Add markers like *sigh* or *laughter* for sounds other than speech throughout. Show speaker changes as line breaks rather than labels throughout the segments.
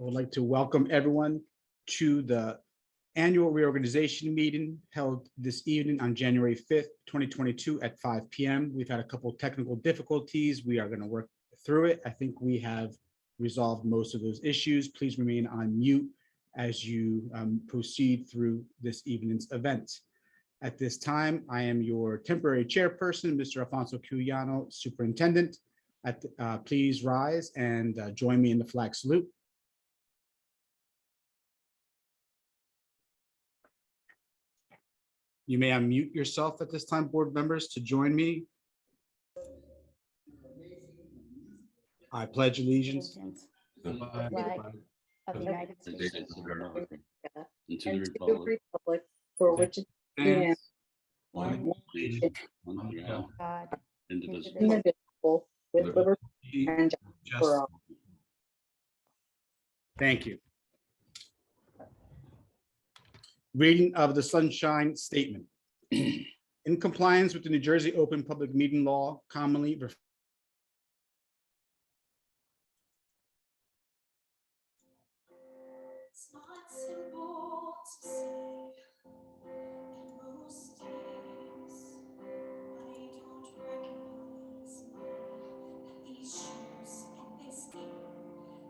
I would like to welcome everyone to the annual reorganization meeting held this evening on January 5th, 2022 at 5 PM. We've had a couple of technical difficulties. We are going to work through it. I think we have resolved most of those issues. Please remain on mute as you um, proceed through this evening's event. At this time, I am your temporary chairperson, Mr. Alfonso Cuyano, Superintendent. At, uh, Please rise and uh, join me in the flag salute. You may unmute yourself at this time, board members, to join me. I pledge allegiance.
allegiance
the flag
flag of the United
of the United
States
States of America and to the
and to the
republic
republic for which it
and
one nation, under God,
of God. Indivisible.
indivisible.
is indivisible with liberty and justice for all.
Thank you. Reading of the Sunshine Statement. *clears throat* In compliance with the New Jersey Open Public Meeting Law, commonly referred
It's not simple to say and most days I don't recognize that these shoes and this skin,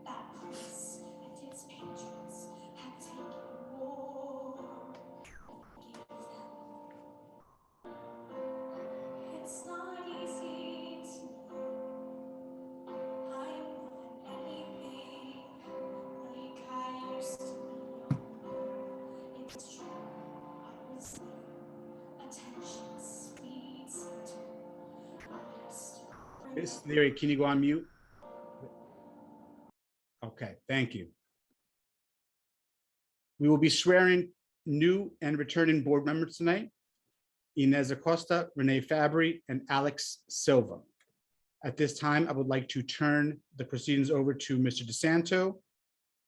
that place and its patrons have taken more than give them. It's not easy to know I want anything like I used to be. It's true, I was there. Attention speeds into arrest.
Miss Leary, can you go on mute? Okay, thank you. We will be swearing new and returning board members tonight. Inez Acosta, Renee Fabry, and Alex Silva. At this time, I would like to turn the proceedings over to Mr. DeSanto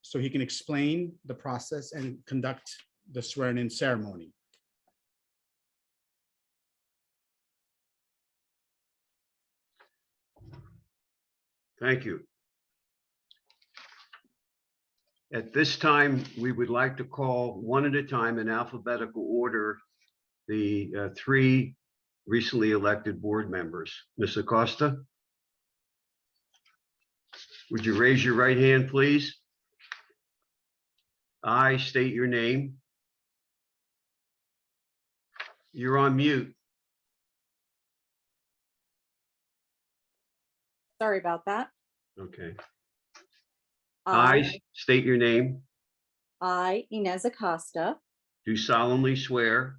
so he can explain the process and conduct the swearing-in ceremony.
Thank you. At this time, we would like to call one at a time in alphabetical order, the uh, three recently elected board members. Ms. Acosta? Would you raise your right hand, please? I state your name. You're on mute.
Sorry about that. Um,
Okay. I state your name.
I, Inez Acosta,
Do solemnly swear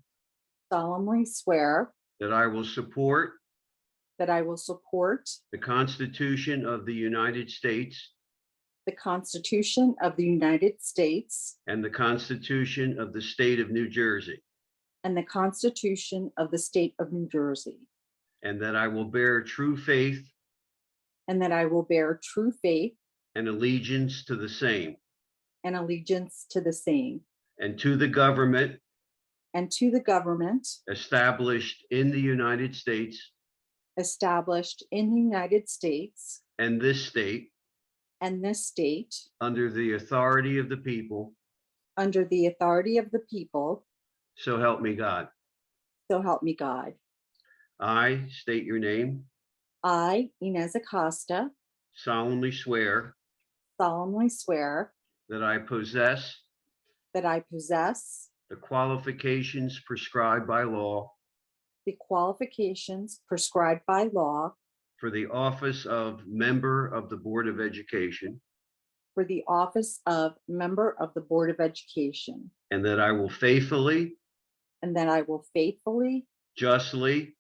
solemnly swear
that I will support
that I will support
The Constitution of the United States
the Constitution of the United States
and the Constitution of the State of New Jersey,
and the Constitution of the State of New Jersey,
and that I will bear true faith
and that I will bear true faith
and allegiance to the same
and allegiance to the same
and to the government
and to the government
established in the United States
established in the United States
and this state
and this state
under the authority of the people,
under the authority of the people,
so help me God.
so help me God.
I state your name,
I, Inez Acosta,
solemnly swear
solemnly swear
that I possess
that I possess
the qualifications prescribed by law
the qualifications prescribed by law
for the office of Member of the Board of Education
for the office of Member of the Board of Education,
And that I will faithfully,
and that I will faithfully,
justly,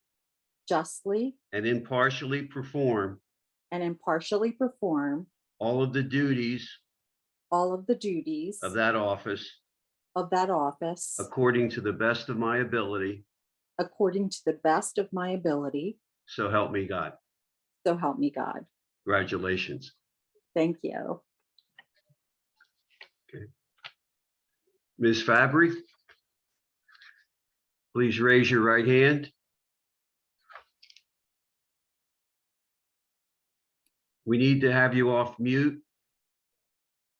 justly,
and impartially perform
and impartially perform
all of the duties
all of the duties
of that office
of that office
according to the best of my ability.
according to the best of my ability,
So help me God.
so help me God.
Congratulations.
Thank you.
Ms. Fabry, please raise your right hand. We need to have you off mute.